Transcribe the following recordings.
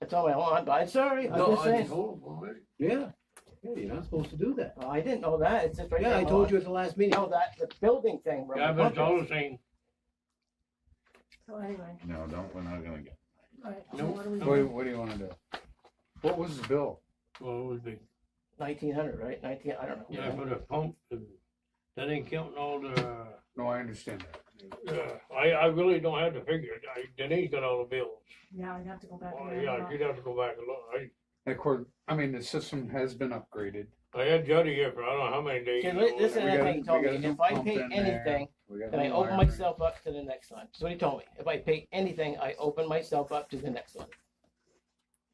That's all I want, I'm sorry, I'm No, just I just, saying. hold on, wait. Yeah, yeah, you're not supposed to do that. Oh, I didn't know that, it's just right there. Yeah, I told you at the last meeting. No, that, the building thing. where I've my been bucket- told the same. So anyway, No, don't, we're not gonna get. all right, so Nope. what do we Nope. What, do you- do? what do you wanna do? What was the bill? Well, it would be, 1900, right, 19, I don't know. yeah, for the pump, and that ain't counting all the, No, I understand that. uh, I, I really don't have to figure it. I- Denise got all the bills. Yeah, I'd have to go back. Oh, and yeah, look. you'd have to go back and look. I, And Of course, I mean, the system has been upgraded. I had Jody here for I don't know how many days. Okay, ago. li- this is We another got- thing he told we me, got a new if I pump pay in there. anything, We got then I new open wiring. myself up to the next one, that's what he told me, if I pay anything, I open myself up to the next one.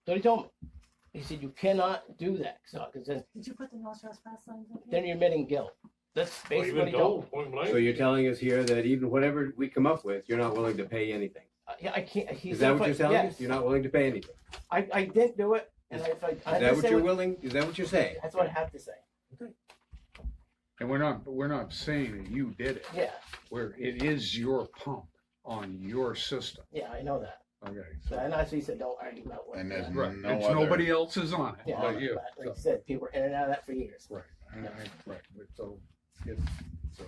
So he told me, he said, you cannot do that, so, cause then, Did you put the no trespass signs up then here? you're admitting guilt, that's Well, you've basically what he been told me. told, point blank. So you're telling us here that even whatever we come up with, you're not willing to pay anything? I- Uh, Yeah, I can't, he's. Is that what you're telling us? You're not willing to pay anything? I, I didn't do it, and I, I, I Is had that to what say you're what- willing, is that what you're saying? that's what I have to say, And we're not, we're not saying that you did it, yeah, where it is your pump on your system, yeah, I know that, okay? So, so- and that's what he said, don't argue about what. And there's yeah. Right, No it's other- nobody else's on it, Yeah, but you. but so- like I said, people were in and out of that for years. Right, and I- right, but so, it, so,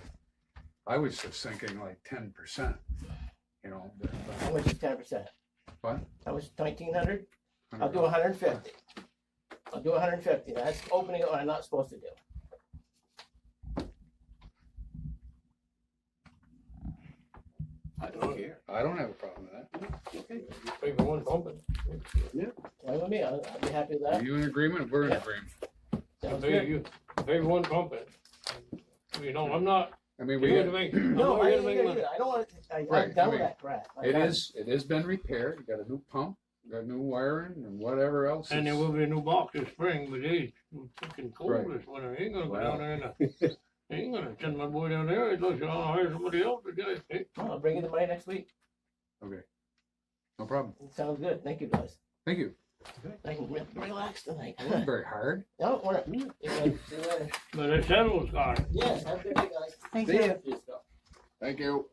I was just thinking like ten percent, you know. but- How much is ten percent? What? Mm-hmm. How much, nineteen hundred? I'll do hundred and fifty. I'll do hundred and fifty, that's opening what I'm not supposed to do. I don't care. I don't have a problem with Pay for one pump. Fine with me, I'll, I'll be happy with that. Are that. you in agreement? We're in Yeah. agreement. Sounds Pay good. you, pay for one pump. You know, I'm not, I you're mean, we, here to it make, I'm No, not I here to ain't gonna make do money. that. I don't want, I, Right, I I'm done with mean, that crap. I got is, it has been repaired, you got a new pump, you got new wiring and whatever else. And there is- will be a new box this spring, but it's fucking cold Right. this winter. Ain't gonna go Wow. down there and, uh, ain't gonna send my boy down there. He'd look, I'll hire somebody else to do it. I'll bring you the money next week. No problem. Sounds good. Thank you, guys. Thank you. I can re- relax tonight. It wasn't very hard. No, we're, you guys- But it settles, God. yes, have a good day, guys. Thank See you. ya. Yes, go. Thank you.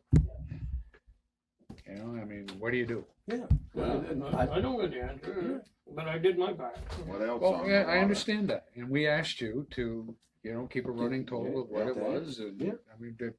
You know, I mean, what do you do? I I don't get the answer, but I did my part. What else? Well, on yeah, the I water? understand that, and we asked you to, you know, keep a running total of what it Yeah. was, and, Yeah. I mean, that-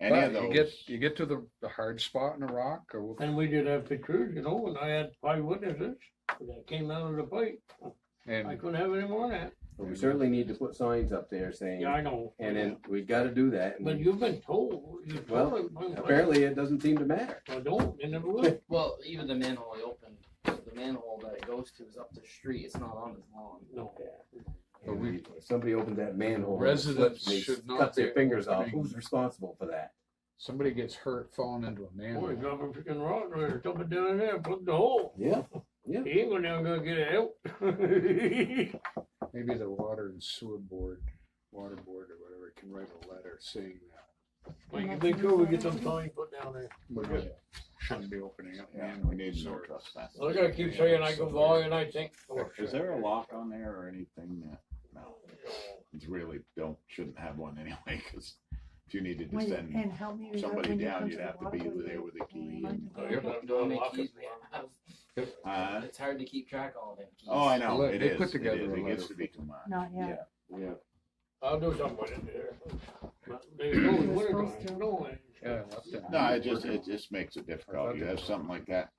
Any But of those. You get, you get to the, the hard spot in the rock or And we did have pictures, you know, and I had five witnesses that came out of the fight. I and couldn't have any more than But we certainly need to put signs up there that. saying, Yeah, I know. and then we gotta do that. and But you've been told, you've Well, told. them, Apparently, it doesn't seem to matter. I don't, and never will. Well, even the manhole I opened, the manhole that it goes to is up the street. It's not on his lawn. No. But we- If Somebody opens that manhole. and Residents slips and they should not Cut be their fingers off, opening- who's responsible for that? somebody gets hurt falling into a Boy, manhole. drop a freaking rock or something down in there, plug the hole. Yeah. He ain't gonna never gonna get it out. Maybe the water and sewer board, water board or whatever can write a letter saying that. Well, you make sure we get some sign put down there. we Yeah. Shouldn't be opening up Yeah, we manholes. need no or- trespass. I gotta keep saying I go by and I think, oh, Is there a lock on there or anything that, no, it's really, don't, shouldn't have one anyway, cause if you needed to Wait, send and help me. with that somebody when you down, come you'd the have to be waterway. there with a key and, Oh, you're- Don't know how many keys we have. uh, It's hard to keep track of all them keys. oh, I know, They it is, put it together is, a it gets letter. to be too much. Not yet. Yeah. I'll do something with it there. But There's no, what are supposed to. you doing? Yeah, left it. No, it just, it just makes it difficult, you have something like that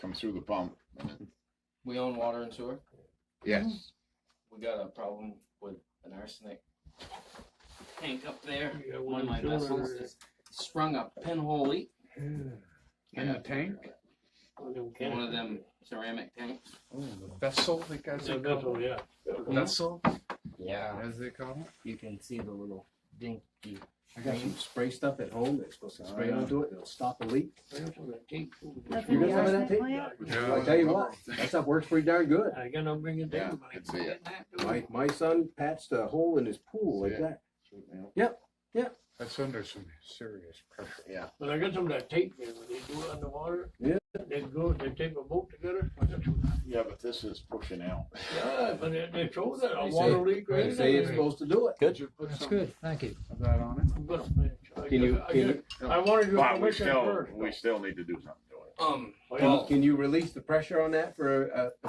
come through the pump and it- We own water and sewer. Yes, We got a problem with an arsenic tank up there. Yeah, One of my well, sewer- vessels just sprung a pinhole leak in the tank, in one of them ceramic tanks. oh, the vessel, I think That's that's a it called. vessel, yeah. Vessel, Yeah. as they call it. You can see the little dinky. I got some spray stuff at home that's supposed to spray Oh, yeah. onto it, and it'll stop a leak. That's You in got the some of that arsenic tape? plant? I tell you what, that stuff works pretty darn good. I gotta bring it Yeah, down. but I I see it. can't do My, my son patched a hole in his pool like See it? that. That's under some serious pressure. But I got some of that tape there, when they do it underwater. Yeah. They go, they tape a boat together. I got some- Yeah, but this is pushing out. Yeah, but they, they show that a They say- water leak. right They say it's there. supposed to do it. Good. That's good, thank you. Is that on it? I'm gonna finish. I Can you, just- uh, I can just- you, I wanted your But we permission still, first. we still need to do something to it. Um. Oh, yeah. can you- can you release the pressure on that for a, a